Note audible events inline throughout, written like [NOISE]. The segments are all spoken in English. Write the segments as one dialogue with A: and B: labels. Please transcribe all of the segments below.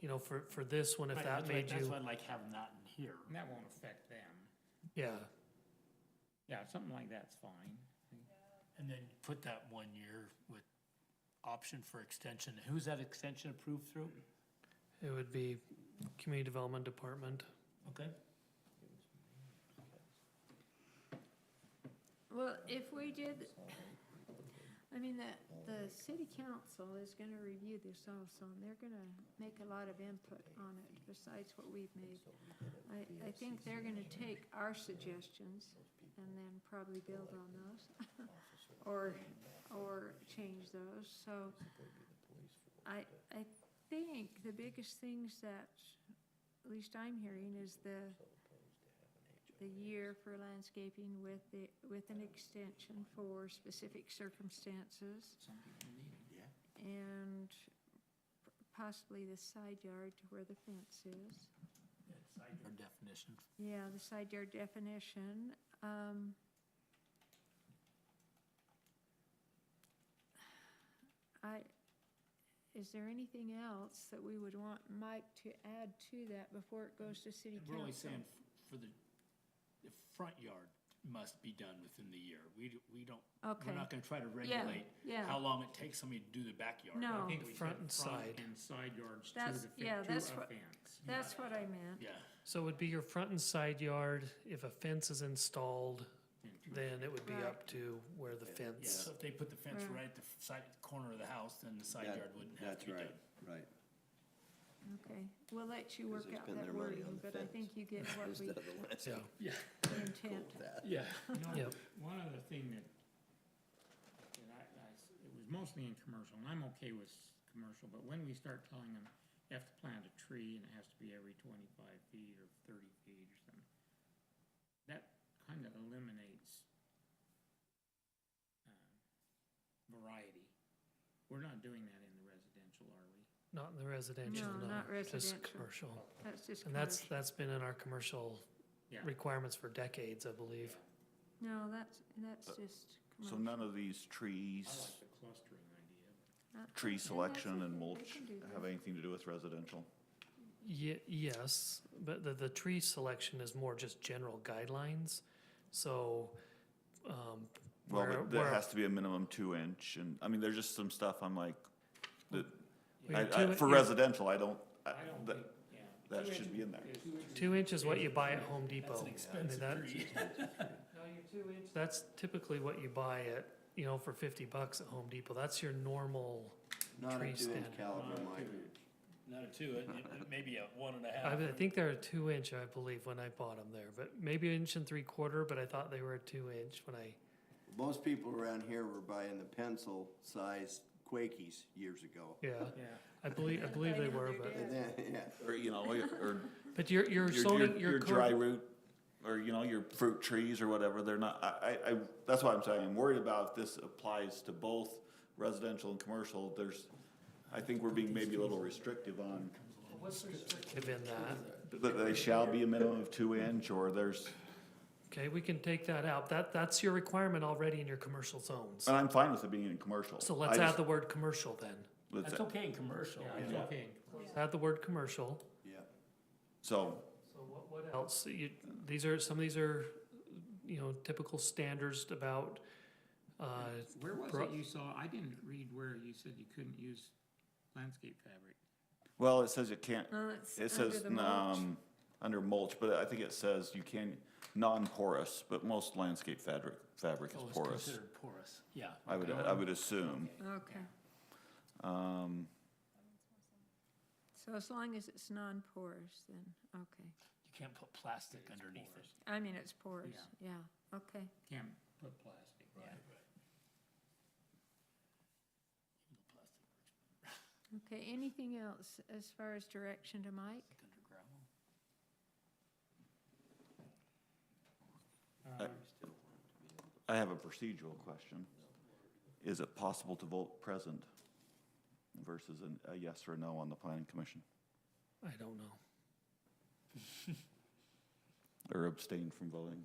A: you know, for, for this one, if
B: Right,
A: that
B: that's why-
A: made
B: That's
A: you,
B: why I like having that in here.
C: And that won't affect them.
A: yeah,
C: Yeah, something like that's fine.
B: And then put that one year with option for extension. Who's that extension approved through?
A: it would be Community Development Department.
B: Okay.
D: Well, if we did, I mean, the, the city council is gonna review this also, and they're gonna make a lot of input on it besides what we've made. I, I think they're gonna take our suggestions and then probably build on those, [LAUGHS] or, or change those, so. I, I think the biggest things that, at least I'm hearing, is the the year for landscaping with the, with an extension for specific circumstances. And possibly the side yard to where the fence is.
B: Our definition.
D: Yeah, the side yard definition, um. I, is there anything else that we would want Mike to add to that before it goes to city council?
B: We're only saying f- for the, the front yard must be done within the year. We, d- we don't,
D: Okay.
B: we're not gonna try to regulate
D: yeah.
B: how long it takes somebody to do the backyard.
D: No.
C: I think we said
A: Front and side.
C: And side yards to
D: Oh. That's-
C: the, fe-
D: yeah,
C: to a
D: that's what-
C: fence.
D: That's what I meant.
B: Yeah,
A: So it would be your front and side yard, if a fence is installed, then it would be
D: Right.
A: up to where the
B: yeah,
A: fence.
B: so if they put the fence
D: Right.
B: right at the f- side, corner of the house, then the side
E: That-
B: yard wouldn't have to be
E: That's
B: done.
E: right, right.
D: Okay, we'll let you
E: Because
D: work
E: they
D: out
E: spend
D: that
E: their money
D: wording,
E: on the
D: but I
E: fence.
D: think you
E: [LAUGHS]
D: get what we
E: Instead of the
A: Yeah,
E: landscape
B: Yeah,
D: intend.
E: that.
B: yeah.
C: You know,
A: Yep.
C: One other thing that, that I, I s- it was mostly in commercial, and I'm okay with s- commercial, but when we start telling them you have to plant a tree and it has to be every twenty-five feet or thirty feet or something, that kind of eliminates um, variety. We're not doing that in the residential, are we?
A: not in the residential, no,
D: No, not
A: just
D: residential.
A: commercial.
D: That's just
A: And that's,
D: commercial.
A: that's been in our commercial
C: Yeah.
A: requirements for decades, I believe.
D: No, that's, that's
E: Uh,
D: just
F: So
D: commercial.
F: none of these trees,
C: I like the clustering idea, but
F: tree
D: that's
F: selection
D: okay.
F: and
D: They
F: mulch
D: can do that.
F: have anything to do with residential?
A: Ye- yes, but the, the tree selection is more just general guidelines, so, um.
F: Well,
A: where-
F: but there
A: where-
F: has to be a minimum two inch and, I mean, there's just some stuff I'm like, that,
A: where
F: I,
A: your
F: I,
A: two-
F: for
A: your
F: residential, I don't, I,
C: I don't
F: that,
C: think, yeah.
F: that should be in there.
A: Two inch is what you buy at Home Depot.
B: That's an expensive
A: that-
B: tree.
A: No, your two inch, that's typically what you buy at, you know, for fifty bucks at Home Depot, that's your normal,
E: Not
A: Tree
E: a two-inch
A: stand.
E: caliber, Mike.
B: [LAUGHS] Not a two, it, it- it may be a one and a
A: I,
B: half.
A: I think they're a two inch, I believe, when I bought them there, but maybe inch and three quarter, but I thought they were a two inch when I,
E: Most people around here were buying the pencil-sized Quakies years ago.
A: yeah.
C: Yeah.
A: I believe, I believe they were, but,
E: And then, [LAUGHS] yeah,
F: Or, you know, or
A: but your, your
F: your,
A: zoning,
F: your,
A: your
F: your
A: code-
F: dry root, or, you know, your fruit trees or whatever, they're not, I, I, I, that's why I'm saying, I'm worried about if this applies to both residential and commercial, there's, I think we're being maybe a little restrictive on,
A: Within that,
F: that they shall be a minimum of two inch, or there's,
A: okay, we can take that out, that, that's your requirement already in your commercial zones.
F: and I'm fine with it being in commercial.
A: So let's
F: Uh, I
A: add
F: just-
A: the word commercial then,
F: let's-
B: That's okay in commercial.
C: It's okay in
A: add the word commercial.
E: yeah.
F: So,
A: So what, what else, you, these are, some of these are, you know, typical standards about, uh,
C: Where was
A: Bro-
C: it you saw, I didn't read where you said you couldn't use landscape fabric.
F: well, it says it can't,
D: No, Uh, it's
F: it
D: under
F: says,
D: the mulch.
F: um, under mulch, but I think it says you can, non-porous, but most landscape fabric, fabric
B: Oh,
F: is
B: it's
F: porous.
B: considered porous, yeah. um,
F: I would, I would assume,
D: Okay,
F: um,
D: so as long as it's non-porous, then, okay.
B: You can't put plastic underneath it.
D: I mean, it's porous, yeah, okay.
C: Can't put plastic, yeah.
D: Okay, anything else as far as direction to Mike?
B: Under gravel.
C: Um,
F: I have a procedural question. Is it possible to vote present versus an- a yes or a no on the planning commission,
A: I don't know.
F: or abstain from voting?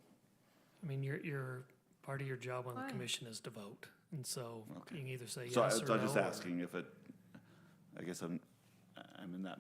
A: I mean, your, your, part of your job on the
D: Why?
A: commission is to vote, and so you
F: Okay.
A: can either say yes
F: So I-
A: or no.
F: so I'm just
A: or-
F: asking if it, I guess I'm, I'm in that